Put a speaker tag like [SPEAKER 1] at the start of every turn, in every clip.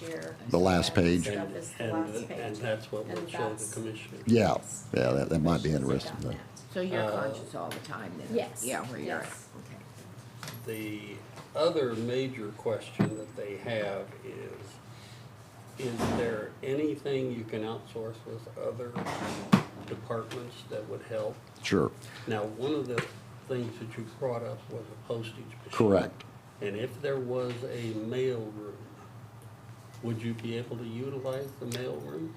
[SPEAKER 1] year.
[SPEAKER 2] The last
[SPEAKER 1] That
[SPEAKER 2] page.
[SPEAKER 1] Stuff is the
[SPEAKER 3] And-
[SPEAKER 1] last
[SPEAKER 3] and-
[SPEAKER 1] page.
[SPEAKER 3] and that's what we'll
[SPEAKER 1] And
[SPEAKER 3] show the
[SPEAKER 1] that's-
[SPEAKER 3] commissioner.
[SPEAKER 2] Yeah, yeah, that, that might be interesting.
[SPEAKER 1] Done
[SPEAKER 2] though.
[SPEAKER 1] that.
[SPEAKER 4] So you're
[SPEAKER 3] Uh,
[SPEAKER 4] conscious all the time then?
[SPEAKER 1] Yes,
[SPEAKER 4] Yeah, where you're at,
[SPEAKER 1] yes.
[SPEAKER 4] okay.
[SPEAKER 3] The other major question that they have is, is there anything you can outsource with other departments that would help?
[SPEAKER 2] Sure,
[SPEAKER 3] Now, one of the things that you brought up was a postage machine.
[SPEAKER 2] correct.
[SPEAKER 3] And if there was a mailroom, would you be able to utilize the mailroom?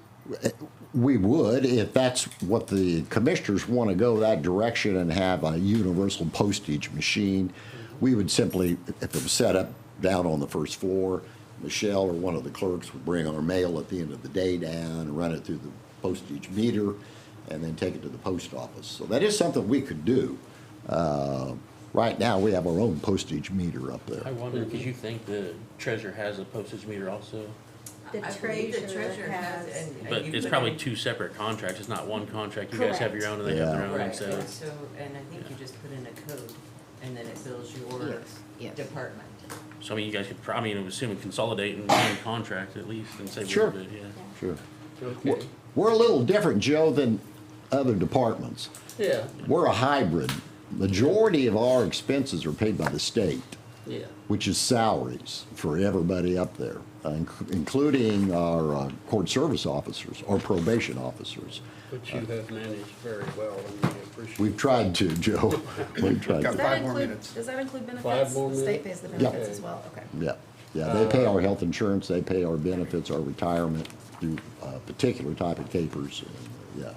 [SPEAKER 2] We would, if that's what the commissioners want to go that direction and have a universal postage machine. We would simply, if it was set up down on the first floor, Michelle or one of the clerks would bring our mail at the end of the day down, run it through the postage meter, and then take it to the post office. So that is something we could do. Uh, Right now, we have our own postage meter up
[SPEAKER 5] I
[SPEAKER 2] there.
[SPEAKER 5] wonder, because you think the treasurer has a postage meter also?
[SPEAKER 1] The
[SPEAKER 6] I believe the
[SPEAKER 1] treasurer has,
[SPEAKER 6] and- and
[SPEAKER 5] But
[SPEAKER 6] you
[SPEAKER 5] it's
[SPEAKER 6] put
[SPEAKER 5] probably
[SPEAKER 6] in-
[SPEAKER 5] two separate contracts, it's not one contract, you guys have your own and they have their own,
[SPEAKER 6] Right,
[SPEAKER 5] so.
[SPEAKER 6] and so, and I think you just put in a code, and then it bills
[SPEAKER 4] Yes,
[SPEAKER 6] your
[SPEAKER 4] yes.
[SPEAKER 6] department.
[SPEAKER 5] So I mean, you guys could, probably, I mean, I'm assuming consolidate in one contract at least and save a
[SPEAKER 2] Sure.
[SPEAKER 5] little bit, yeah.
[SPEAKER 2] Sure.
[SPEAKER 3] Okay,
[SPEAKER 2] We're a little different, Joe, than other departments.
[SPEAKER 3] yeah,
[SPEAKER 2] We're a hybrid. Majority of our expenses are paid by the state,
[SPEAKER 3] yeah.
[SPEAKER 2] which is salaries for everybody up there, uh, inc- including our uh, court service officers, our probation officers.
[SPEAKER 3] But you have managed very well and we appreciate.
[SPEAKER 2] We've tried to, Joe. We've tried
[SPEAKER 7] Got
[SPEAKER 2] to.
[SPEAKER 7] five more
[SPEAKER 1] include-
[SPEAKER 7] minutes.
[SPEAKER 1] Does that include
[SPEAKER 3] Five
[SPEAKER 1] benefits?
[SPEAKER 3] more
[SPEAKER 1] The state pays
[SPEAKER 3] minutes?
[SPEAKER 1] the
[SPEAKER 3] Yeah.
[SPEAKER 1] benefits as well, okay.
[SPEAKER 2] Yeah, yeah, they pay our health insurance, they pay our benefits, our retirement through a particular type of capers. and, uh, Yeah,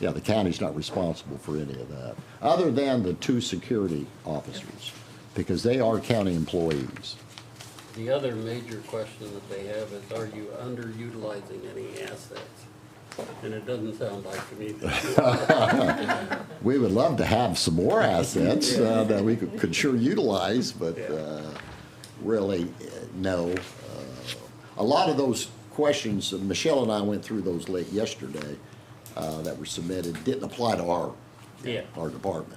[SPEAKER 2] yeah, the county's not responsible for any of that, other than the two security officers, because they are county employees.
[SPEAKER 3] The other major question that they have is, are you underutilizing any assets? And it doesn't sound like to me that
[SPEAKER 2] We would love to have some more assets uh, that we could could sure utilize, but
[SPEAKER 3] Yeah.
[SPEAKER 2] uh, really, uh, no. Uh, A lot of those questions, uh, Michelle and I went through those late yesterday uh, that were submitted, didn't apply to our,
[SPEAKER 3] Yeah.
[SPEAKER 2] our department.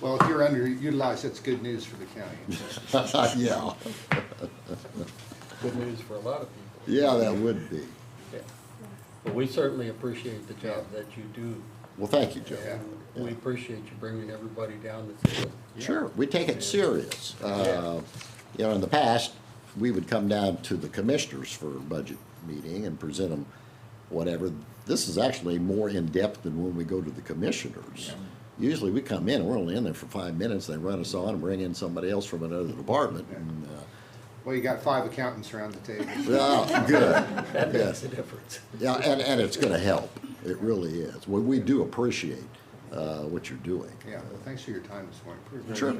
[SPEAKER 7] Well, if you're underutilized, that's good news for the county.
[SPEAKER 2] Uh, Yeah,
[SPEAKER 3] good news for a lot of people.
[SPEAKER 2] yeah, that would be.
[SPEAKER 3] Yeah. But we certainly appreciate the job that you do.
[SPEAKER 2] Well, thank you, Joe.
[SPEAKER 7] Yeah.
[SPEAKER 3] We appreciate you bringing everybody down to see it.
[SPEAKER 2] Sure, we take it serious. Uh, You know, in the past, we would come down to the commissioners for a budget meeting and present them whatever. This is actually more in-depth than when we go to the commissioners. Usually, we come in, and we're only in there for five minutes, they run us on and bring in somebody else from another department. and, uh,
[SPEAKER 7] Well, you got five accountants around the table.
[SPEAKER 2] Oh, good.
[SPEAKER 3] That makes
[SPEAKER 2] Yes.
[SPEAKER 3] a difference.
[SPEAKER 2] Yeah, and, and it's gonna help, it really is. We, we do appreciate uh, what you're doing.
[SPEAKER 7] Yeah, well, thanks for your time this morning.
[SPEAKER 2] Sure.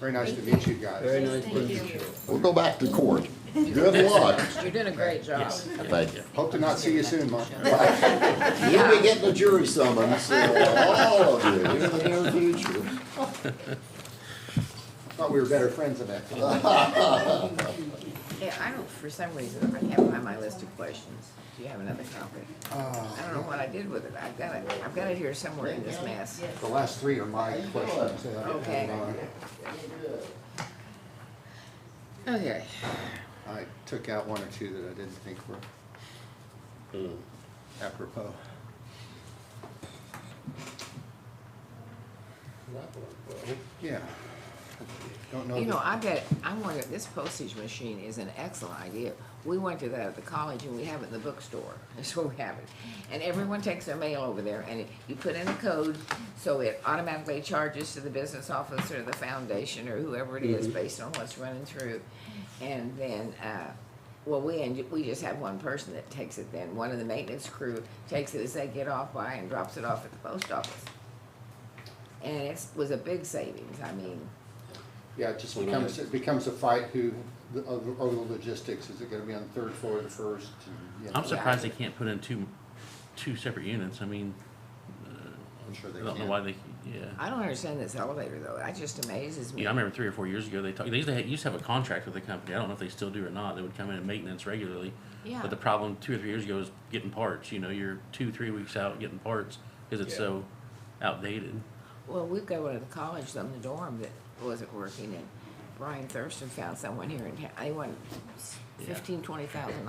[SPEAKER 7] Very nice to meet you guys.
[SPEAKER 3] Very nice to meet you.
[SPEAKER 2] We'll go back to court. Good luck.
[SPEAKER 4] You're doing a great job.
[SPEAKER 2] Thank you.
[SPEAKER 7] Hope to not see you soon, Mark.
[SPEAKER 2] You'll be getting a jury summons, uh, all of you, in the near future.
[SPEAKER 7] Thought we were better friends than that.
[SPEAKER 4] Yeah, I don't, for some reason, I have it on my list of questions. Do you have another copy? I don't know what I did with it. I've got it, I've got it here somewhere in this mess.
[SPEAKER 7] The last three are my questions. uh,
[SPEAKER 4] Okay. Okay.
[SPEAKER 7] I took out one or two that I didn't think were
[SPEAKER 5] Hmm.
[SPEAKER 7] apropos.
[SPEAKER 3] That one, well,
[SPEAKER 7] Yeah. Don't know.
[SPEAKER 4] You know,
[SPEAKER 7] that-
[SPEAKER 4] I bet, I wonder, this postage machine is an excellent idea. We went to that at the college and we have it in the bookstore, that's where we have it. And everyone takes their mail over there and it- you put in a code, so it automatically charges to the business office or the foundation or whoever it is based on what's running through. And then, uh, well, we, end- we just have one person that takes it then. One of the maintenance crew takes it as they get off by and drops it off at the post office. And it was a big savings, I mean,
[SPEAKER 7] Yeah, it just
[SPEAKER 5] When I-
[SPEAKER 7] becomes, it becomes a fight who, the- of the of the logistics. Is it gonna be on the third floor or the first? and, you
[SPEAKER 5] I'm
[SPEAKER 7] know.
[SPEAKER 5] surprised they can't put in two, two separate units, I mean,
[SPEAKER 7] I'm sure
[SPEAKER 5] I
[SPEAKER 7] they
[SPEAKER 5] don't know
[SPEAKER 7] can.
[SPEAKER 5] why they, yeah.
[SPEAKER 4] I don't understand this elevator though. That just amazes me.
[SPEAKER 5] Yeah, I remember three or four years ago, they talked, they used to, ha- used to have a contract with the company, I don't know if they still do or not, they would come in and maintenance regularly.
[SPEAKER 4] Yeah.
[SPEAKER 5] But the problem two or three years ago is getting parts, you know, you're two, three weeks out getting parts, cause it's
[SPEAKER 3] Yeah.
[SPEAKER 5] so outdated.
[SPEAKER 4] Well, we've got one at the college, though, in the dorm that wasn't working, and Brian Thurston found someone here in town. They wanted
[SPEAKER 5] Yeah.
[SPEAKER 4] fifteen, twenty thousand